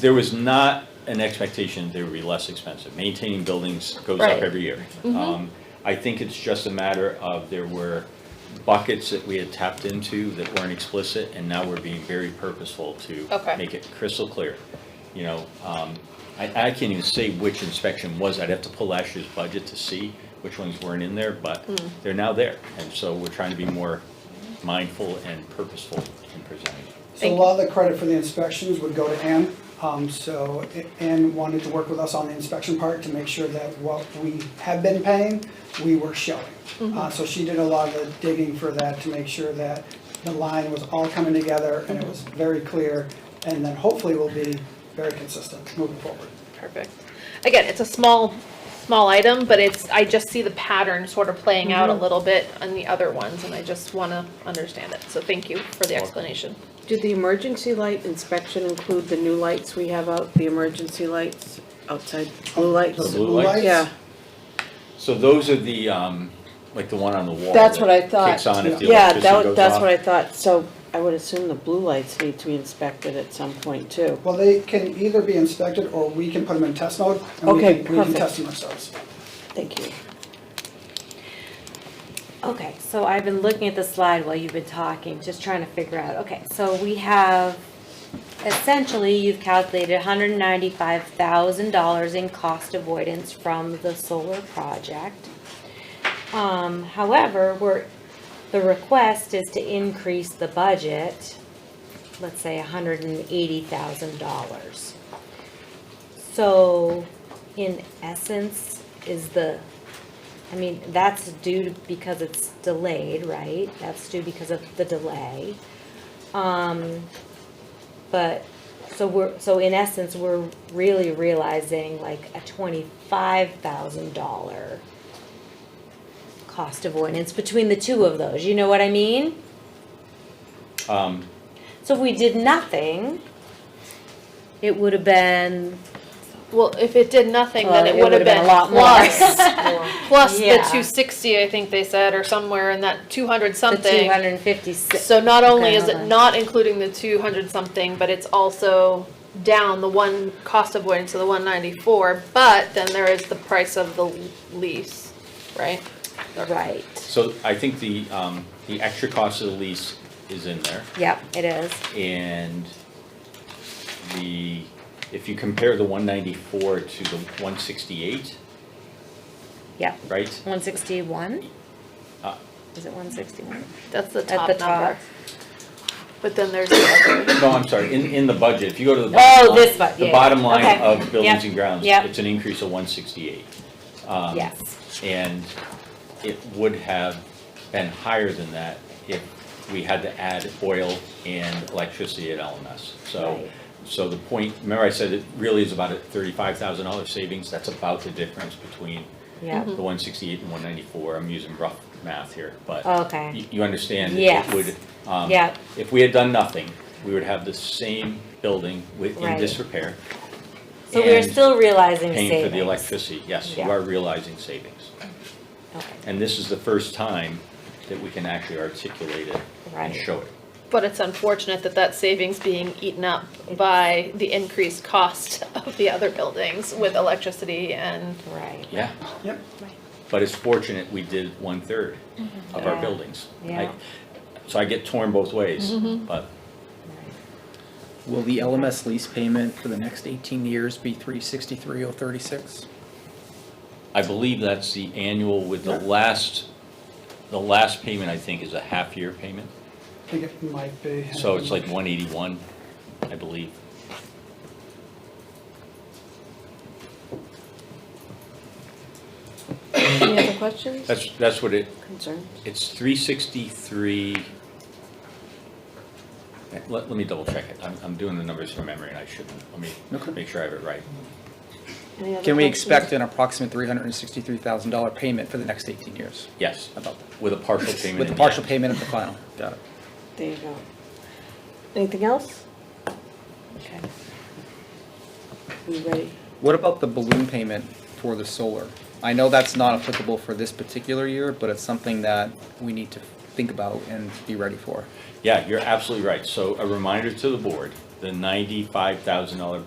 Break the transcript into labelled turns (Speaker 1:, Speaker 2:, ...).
Speaker 1: there was not an expectation they would be less expensive. Maintaining buildings goes up
Speaker 2: Right. Mm-hmm.
Speaker 1: every year. Um, I think it's just a matter of there were buckets that we had tapped into that weren't explicit, and now we're being very purposeful to
Speaker 2: Okay.
Speaker 1: make it crystal clear. You know, um, I, I can't even say which inspection was, I'd have to pull last year's budget to see which ones weren't in there, but
Speaker 2: Mm.
Speaker 1: they're now there. And so we're trying to be more mindful and purposeful in presenting.
Speaker 3: So a lot of the credit for the inspections would go to Ann. Um, so A- Ann wanted to work with us on the inspection part to make sure that what we have been paying, we were showing.
Speaker 4: Mm-hmm.
Speaker 3: Uh, so she did a lot of the digging for that to make sure that the line was all coming together and it was
Speaker 4: Mm-hmm.
Speaker 3: very clear. And then hopefully will be very consistent moving forward.
Speaker 2: Perfect. Again, it's a small, small item, but it's, I just see the pattern sort of playing out
Speaker 5: Mm-hmm.
Speaker 2: a little bit on the other ones, and I just want to understand it. So thank you for the explanation.
Speaker 4: Did the emergency light inspection include the new lights we have out, the emergency lights outside, blue
Speaker 1: The
Speaker 4: lights?
Speaker 1: blue lights?
Speaker 4: Yeah,
Speaker 1: So those are the, um, like the one on the wall.
Speaker 4: That's
Speaker 1: that
Speaker 4: what I thought.
Speaker 1: Kicks on if the
Speaker 4: yeah,
Speaker 1: electricity
Speaker 4: that,
Speaker 1: goes
Speaker 4: that's
Speaker 1: off.
Speaker 4: what I thought, so I would assume the blue lights need to be inspected at some point too.
Speaker 3: Well, they can either be inspected or we can put them in test mode and we
Speaker 4: Okay,
Speaker 3: can, we can
Speaker 4: perfect.
Speaker 3: test them ourselves.
Speaker 4: Thank you.
Speaker 5: Okay, so I've been looking at the slide while you've been talking, just trying to figure out, okay, so we have, essentially, you've calculated hundred and ninety-five thousand dollars in cost avoidance from the solar project. Um, however, we're, the request is to increase the budget, let's say hundred and eighty thousand dollars. So, in essence, is the I mean, that's due to- because it's delayed, right? That's due because of the delay. Um, but, so we're, so in essence, we're really realizing like a twenty-five thousand dollar cost avoidance between the two of those, you know what I mean?
Speaker 1: Um,
Speaker 5: So if we did nothing, it would have been, uh,
Speaker 2: Well, if it did nothing,
Speaker 5: well,
Speaker 2: then it would have been
Speaker 5: a lot more.
Speaker 2: plus, plus the
Speaker 5: Yeah.
Speaker 2: two sixty, I think they said, or somewhere in that two hundred
Speaker 5: The two
Speaker 2: something.
Speaker 5: hundred and fifty-six,
Speaker 2: So not only
Speaker 5: Okay,
Speaker 2: is
Speaker 5: hold
Speaker 2: it
Speaker 5: on.
Speaker 2: not including the two hundred something, but it's also down the one cost avoidance to the one ninety-four, but then there is the price of the lease, right?
Speaker 5: right,
Speaker 1: so I think the, um, the extra cost of the lease is in there.
Speaker 5: yep, it is.
Speaker 1: And the, if you compare the one ninety-four to the one sixty-eight,
Speaker 5: Yep.
Speaker 1: right?
Speaker 5: One sixty-one?
Speaker 1: Uh.
Speaker 5: Is it one sixty-one?
Speaker 2: That's the top
Speaker 5: At the
Speaker 2: number.
Speaker 5: top.
Speaker 2: But then there's the other.
Speaker 1: No, I'm sorry, in, in the budget, if you go to the bottom
Speaker 5: Oh,
Speaker 1: line.
Speaker 5: this bu- yeah,
Speaker 1: The bottom
Speaker 5: yeah.
Speaker 1: line
Speaker 5: Okay.
Speaker 1: of buildings
Speaker 5: Yep.
Speaker 1: and grounds,
Speaker 5: Yep.
Speaker 1: it's an increase of one sixty-eight. Um,
Speaker 5: Yes,
Speaker 1: And it would have been higher than that if we had to add oil and electricity at LMS. So,
Speaker 5: Right.
Speaker 1: so the point, remember I said it really is about a thirty-five thousand dollar savings, that's about the difference between
Speaker 5: yeah,
Speaker 1: the one sixty-eight and one ninety-four, I'm using rough math here, but.
Speaker 5: Oh, Okay.
Speaker 1: You, you understand,
Speaker 5: Yes.
Speaker 1: it would, um,
Speaker 5: Yeah.
Speaker 1: if we had done nothing, we would have the same building with, in
Speaker 5: Right.
Speaker 1: disrepair.
Speaker 5: so we're
Speaker 1: and
Speaker 5: still realizing savings.
Speaker 1: Paying for the electricity, yes, you
Speaker 5: Yeah.
Speaker 1: are realizing savings.
Speaker 5: Okay.
Speaker 1: And this is the first time that we can actually articulate it and
Speaker 5: Right.
Speaker 1: show it.
Speaker 2: But it's unfortunate that that savings being eaten up by the increased cost of the other buildings with electricity and.
Speaker 5: Right,
Speaker 1: Yeah,
Speaker 3: Yep.
Speaker 1: but it's fortunate we did one-third of our
Speaker 5: Mm-hmm. Yeah.
Speaker 1: buildings. I-
Speaker 5: Yeah. Mm-hmm.
Speaker 1: So I get torn both ways, but
Speaker 6: Will the LMS lease payment for the next 18 years be 363,036?
Speaker 1: I believe that's the annual with the last, the last payment, I think, is a half-year payment.
Speaker 3: I think it might be.
Speaker 1: So it's like one eighty-one, I believe.
Speaker 4: Any other questions,
Speaker 1: That's, that's what it,
Speaker 4: concerns?
Speaker 1: it's three sixty-three. Let, let me double check it. I'm, I'm doing the numbers from memory and I shouldn't. Let
Speaker 6: Okay.
Speaker 1: me make sure I have it right.
Speaker 4: Any other
Speaker 6: Can we
Speaker 4: questions?
Speaker 6: expect an approximate $363,000 payment for the next 18 years?
Speaker 1: Yes,
Speaker 6: About that.
Speaker 1: with a partial payment.
Speaker 6: With the
Speaker 1: in
Speaker 6: partial
Speaker 1: end.
Speaker 6: payment of the final? Got it.
Speaker 4: There you go. Anything else?
Speaker 5: okay.
Speaker 4: You ready?
Speaker 6: What about the balloon payment for the solar? I know that's not applicable for this particular year, but it's something that we need to think about and be ready for.
Speaker 1: Yeah, you're absolutely right. So a reminder to the board, the ninety-five thousand dollar